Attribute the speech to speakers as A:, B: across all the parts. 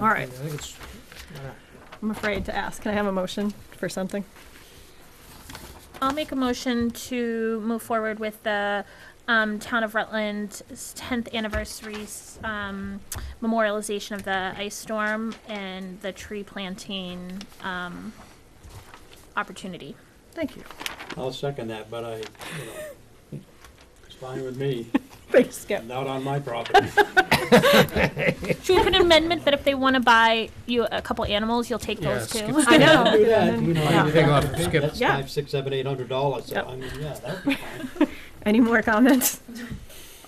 A: All right.
B: I think it's, why not?
A: I'm afraid to ask. Can I have a motion for something?
C: I'll make a motion to move forward with the um, Town of Rutland's 10th anniversary um, memorialization of the ice storm and the tree planting um, opportunity.
A: Thank you.
D: I'll second that, but I, you know, it's fine with me,
A: Thanks, Skip.
D: not on my property.
C: Should we put an amendment that if they want to buy you a couple animals, you'll take
B: Yeah,
C: those
B: skip
C: too?
A: I know.
D: Do that, you know,
A: Yeah.
D: I-
B: Take off, skip.
D: That's
A: Yeah.
D: five, six, seven, eight hundred dollars, so
A: Yep.
D: I mean, yeah, that'd be fine.
A: Any more comments?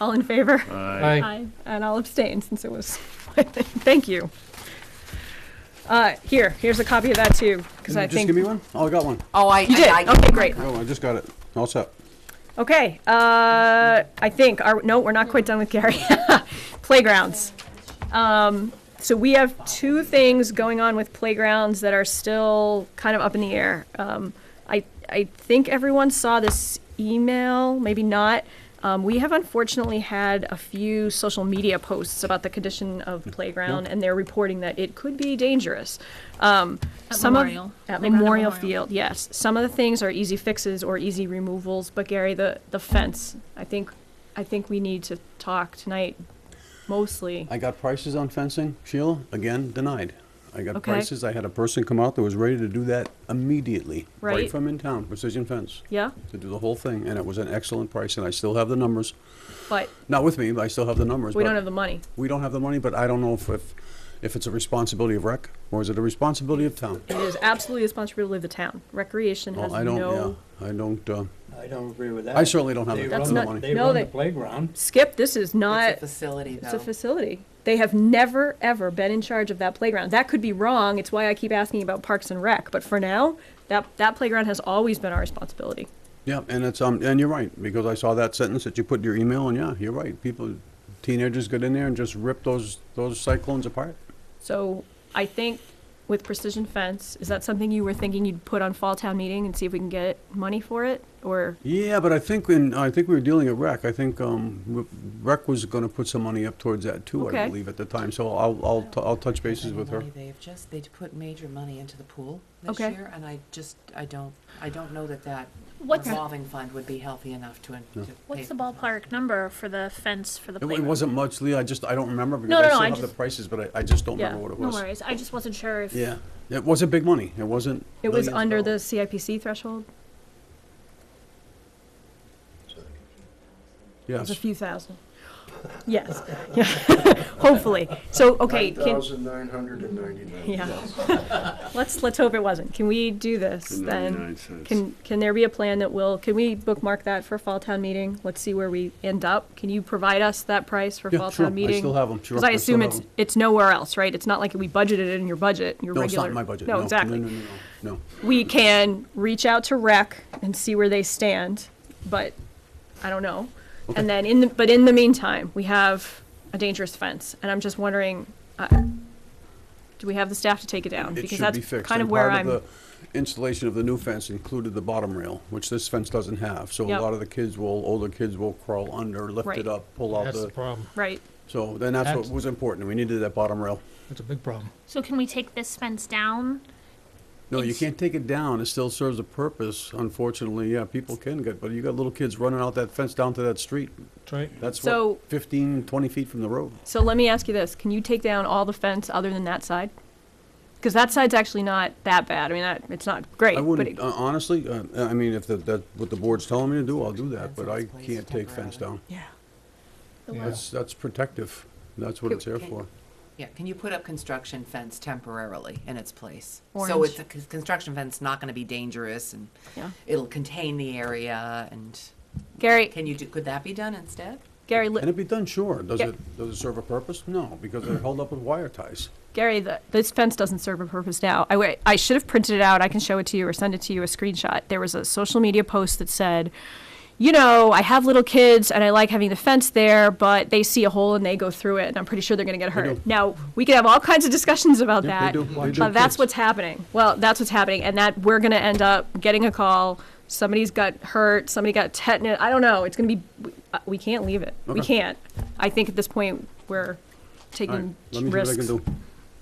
A: All in favor?
B: Aye.
C: Aye.
A: And I'll abstain since it was. Thank you. Uh, here, here's a copy of that too, because I
E: Just
A: think.
E: give me one? Oh, I got one.
F: Oh, I,
A: You did.
F: I, I
A: Okay, great.
E: Oh, I just got it. All set.
A: Okay, uh, I think, our, no, we're not quite done with Gary. Playgrounds. Um, so we have two things going on with playgrounds that are still kind of up in the air. Um, I, I think everyone saw this email, maybe not. Um, we have unfortunately had a few social media posts about the condition of playground, and they're reporting that it could be dangerous. Um,
C: At
A: some of-
C: Memorial.
A: At
C: Playground at
A: Memorial
C: Memorial.
A: Field field, yes. Some of the things are easy fixes or easy removals, but Gary, the, the fence, I think, I think we need to talk tonight mostly.
E: I got prices on fencing, Sheila, again, denied. I got
A: Okay.
E: prices, I had a person come out that was ready to do that immediately,
A: Right.
E: right from in town, Precision Fence,
A: Yeah,
E: to do the whole thing, and it was an excellent price, and I still have the numbers.
A: but
E: Not with me, but I still have the numbers.
A: we
E: but
A: don't have the money.
E: We don't have the money, but I don't know if, if, if it's a responsibility of rec, or is it a responsibility of town?
A: It is absolutely the responsibility of the town. Recreation has
E: Well, I don't,
A: no.
E: yeah, I don't, uh,
D: I don't agree with that.
E: I certainly don't have
D: They
E: the
A: That's
D: run the-
A: not-
E: money.
D: They
A: no,
D: run
A: they-
D: the playground.
A: Skip, this is not.
F: It's a facility, though.
A: It's a facility. They have never, ever been in charge of that playground. That could be wrong. It's why I keep asking about Parks and Rec, but for now, that, that playground has always been our responsibility.
E: Yeah, and it's, um, and you're right, because I saw that sentence that you put in your email, and yeah, you're right. People, teenagers get in there and just rip those, those cyclones apart.
A: So I think with precision fence, is that something you were thinking you'd put on fall town meeting and see if we can get money for it? Or,
E: Yeah, but I think when, I think we were dealing at rec, I think, um, w- rec was gonna put some money up towards that too,
A: Okay.
E: I believe, at the time, so I'll, I'll, t- I'll touch bases with her.
F: They've just, they put major money into the pool this
A: Okay.
F: year, and I just, I don't, I don't know that that
C: What's-
F: revolving fund would be healthy enough to. to pay
C: What's the
F: for that.
C: ballpark number for the fence for the
E: It wa-
C: playground?
E: it wasn't much, Lee, I just, I don't remember, because
C: No,
E: I
C: no, no,
E: still
C: I'm
E: have the
C: just-
E: prices, but I, I just don't
A: Yeah,
E: remember what it
C: No
E: was.
C: worries. I just wasn't sure if.
E: Yeah, it wasn't big money, it wasn't
A: it was
E: millions of
A: under the
E: dollars.
A: CIPC threshold? It was a
E: Yes,
A: few thousand. Yes, yeah, hopefully. So, okay, can,
G: 9,999.
A: yeah. Let's, let's hope it wasn't. Can we do this then? Can, can there be a plan that will, can we bookmark that for fall town meeting? Let's see where we end up. Can you provide us that price for
E: Yeah,
A: fall
E: sure. I
A: town meeting?
E: still have 'em, sure,
A: Because I
E: I still
A: assume
E: have
A: it's,
E: 'em.
A: it's nowhere else, right? It's not like we budgeted it in your budget, your
E: no, it's
A: regular.
E: not in my budget, no.
A: No, exactly.
E: No, no, no, no, no.
A: We can reach out to rec and see where they stand, but I don't know.
E: Okay.
A: And then in the, but in the meantime, we have a dangerous fence, and I'm just wondering, uh, do we have the staff to take it down?
E: It
A: Because
E: should
A: that's
E: be fixed.
A: Kind of
E: and
A: where
E: part
A: I'm,
E: the Installation of the new fence included the bottom rail, which this fence doesn't have. So
A: Yep.
E: a lot of the kids will, older kids will crawl under, lift
A: Right.
E: it up, pull out
B: That's the
E: the,
B: problem.
A: right,
E: so then that's what
B: That's-
E: was important. We needed that bottom rail.
B: That's a big problem.
C: So can we take this fence down?
E: No, you
C: It's-
E: can't take it down. It still serves a purpose. Unfortunately, yeah, people can get, but you got little kids running out that fence down to that street.
B: That's right.
E: That's
A: So-
E: what, 15, 20 feet from the road.
A: so let me ask you this, can you take down all the fence other than that side? Because that side's actually not that bad, I mean, that, it's not great, but
E: I
A: it,
E: wouldn't, uh, honestly, uh, I mean, if that, that, what the board's telling me to do, I'll do that, but I
F: Fence in its place
E: can't take fence
F: temporarily.
E: down.
A: yeah.
B: Yeah.
E: That's, that's protective. That's what it's there
F: Okay.
E: for.
F: Yeah, can you put up construction fence temporarily in its place? So
A: Orange.
F: it's, a con- construction fence not gonna be dangerous, and
A: Yeah.
F: it'll contain the area, and
A: Gary,
F: can you do, could that be done instead?
A: Gary, li-
E: Can it be done? Sure. Does
A: Yeah.
E: it, does it serve a purpose? No, because they're held up with wire ties.
A: Gary, the, this fence doesn't serve a purpose now. I, wa- I should have printed it out. I can show it to you or send it to you a screenshot. There was a social media post that said, you know, I have little kids and I like having the fence there, but they see a hole and they go through it, and I'm pretty sure they're going to get hurt.
E: do.
A: Now, we could have all kinds of discussions about
E: Yeah, they
A: that.
E: do. They
A: but
E: do,
A: that's
E: kids.
A: what's happening. Well, that's what's happening, and that we're going to end up getting a call. Somebody's got hurt. Somebody got tetanus. I don't know. It's going to be. We, uh, we can't leave it. We
E: Okay.
A: can't. I think at this point we're
E: All right,
A: taking
E: let me see what I
A: risks.
E: can do.